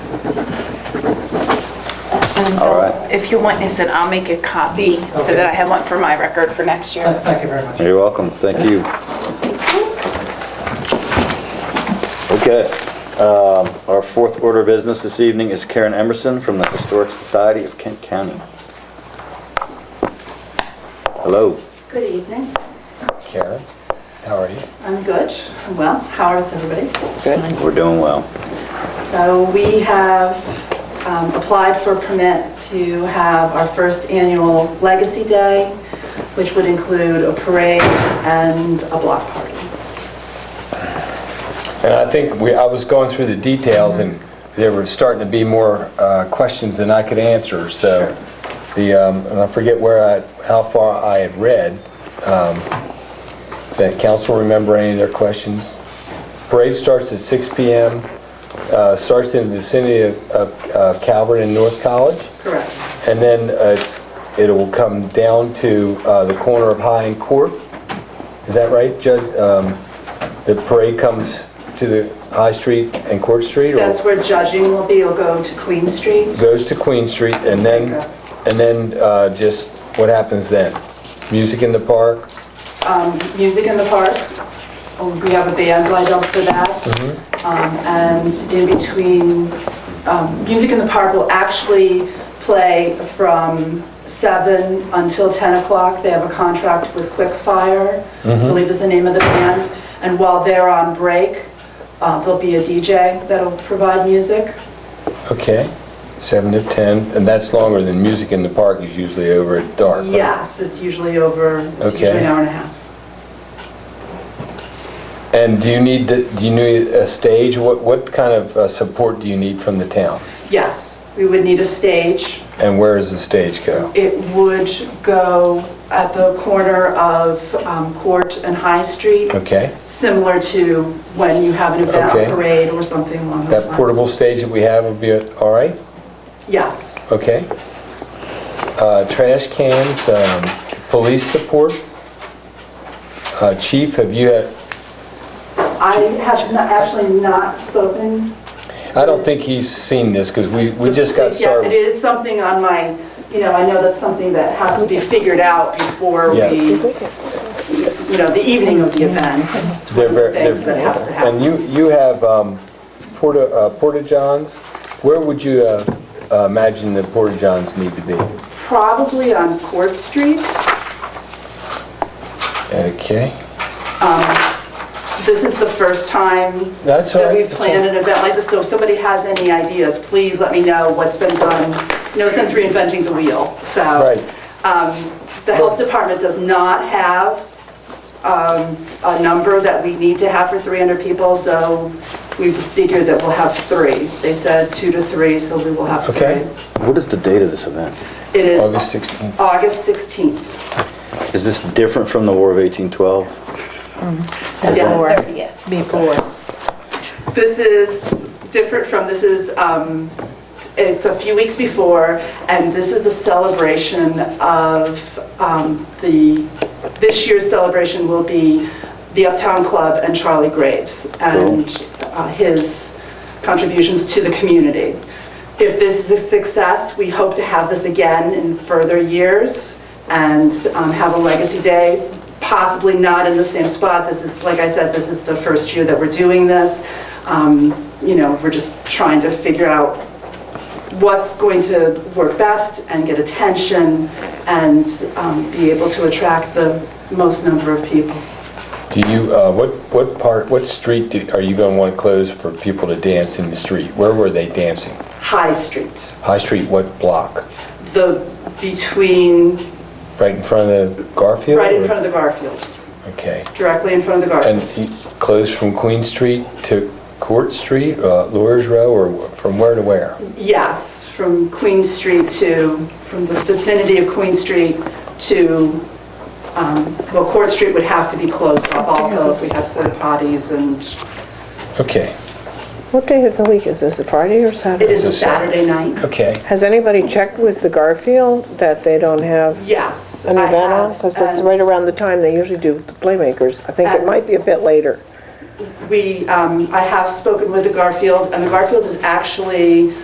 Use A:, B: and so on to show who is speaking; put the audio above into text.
A: And uh,
B: All right.
A: If you want, Nis, I'll make a copy so
C: Okay.
A: that I have one for my record for next year.
C: Thank you very much.
B: You're welcome, thank you. Okay, um, our fourth order of business this evening is Karen Emerson from the Historic Society of Kent County. Hello.
D: Good evening.
E: Karen, how are you?
D: I'm good. I'm well. How is everybody?
B: We're doing well.
D: So we have um, applied for a permit to have our first annual Legacy Day, which would include a parade and a block party.
E: And I think we, I was going through the details, and there were starting to be more uh, questions than I could answer, so the, um, and I forget where I, how far I had read. um, Does council remember any of their questions? Parade starts at 6 PM, uh, starts in the vicinity of- of uh, Calvert and North College.
D: Correct.
E: And then uh, it's, it will come down to uh, the corner of High and Court. Is that right, Judge? Um, The parade comes to the High Street and Court Street? or
D: That's where judging will be. You'll go to Queen Street.
E: Goes to Queen Street and then, and then uh, just, what happens then? Music in the park?
D: Music in the park. Um, We have a band lined up for that. Um, And in between, um, Music in the Park will actually play from seven until 10 o'clock. They have a contract with Quick Fire, I believe is the name of the band. And while they're on break, uh, there'll be a DJ that'll provide music.
E: Okay, 7 to 10, and that's longer than music in the park is usually over at dark. right?
D: Yes, it's usually over, it's usually
E: Okay.
D: an hour and a half.
E: And do you need, the- do you need a stage? What, what kind of uh, support do you need from the town?
D: Yes, we would need a stage.
E: And where does the stage go?
D: It would go at the corner of um, Court and High Street,
E: Okay,
D: similar to when you have an event
E: Okay.
D: parade or something along those lines.
E: that portable stage that we have will be, a- all right,
D: Yes,
E: okay. Uh, Trash cans, um, police support. Uh, Chief, have you had,
D: I have not- actually not spoken.
E: I don't think he's seen this, because we, we just got
D: Yeah, It
E: started.
D: is something on my, you know, I know that's something that has to be figured out before
E: Yeah.
D: we, you know, the evening of the event. It's one
E: They're
D: of the
E: ver- they're-
D: things that has to happen.
E: And you, you have um, porta, uh, porta johns. Where would you uh, uh, imagine the porta johns need to be?
D: Probably on Court Street.
E: Okay,
D: This is the first time
E: That's all
D: that
E: right,
D: we've
E: that's all
D: planned an event like this, so if somebody has any ideas, please let me know what's been done, you know, since reinventing the wheel, so. um,
E: right.
D: The health department does not have um, a number that we need to have for 300 people, so we figured that we'll have three. They said two to three, so we will have
E: Okay.
D: three.
B: What is the date of this event?
D: It is
E: August 16th.
D: August 16th.
B: Is this different from the War of 1812?
D: Yes.
F: Before.
D: This is different from, this is, um, it's a few weeks before, and this is a celebration of um, the, this year's celebration will be the Uptown Club and Charlie Graves and uh, his contributions to the community. If this is a success, we hope to have this again in further years and um, have a legacy day, possibly not in the same spot. This is, like I said, this is the first year that we're doing this. Um, You know, we're just trying to figure out what's going to work best and get attention and um, be able to attract the most number of people.
E: Do you, uh, what, what part, what street do- are you going to want to close for people to dance in the street? Where were they dancing?
D: High Street,
E: High Street, what block?
D: the, between,
E: Right in front of the Garfield?
D: right in front of the Garfield,
E: the... Okay.
D: directly in front of the
E: And
D: Garfield.
E: you close from Queen Street to Court Street, uh, Lawyer's Row, or from where to where?
D: Yes, from Queen Street to, from the vicinity of Queen Street to, um, well, Court Street would have to be closed off also if we had porta potties and
E: Okay,
F: What day of the week is this, a Friday or
D: it
F: Saturday?
D: is a
E: It's a Sat-
D: Saturday night.
E: okay.
F: Has anybody checked with the Garfield that they don't have
D: Yes.
F: an
D: I
F: event on?
D: have, um,
F: Because that's
D: and-
F: right around the time they usually do the Playmakers. I think it
D: And-
F: might be a bit later.
D: We, um, I have spoken with the Garfield, and the Garfield is actually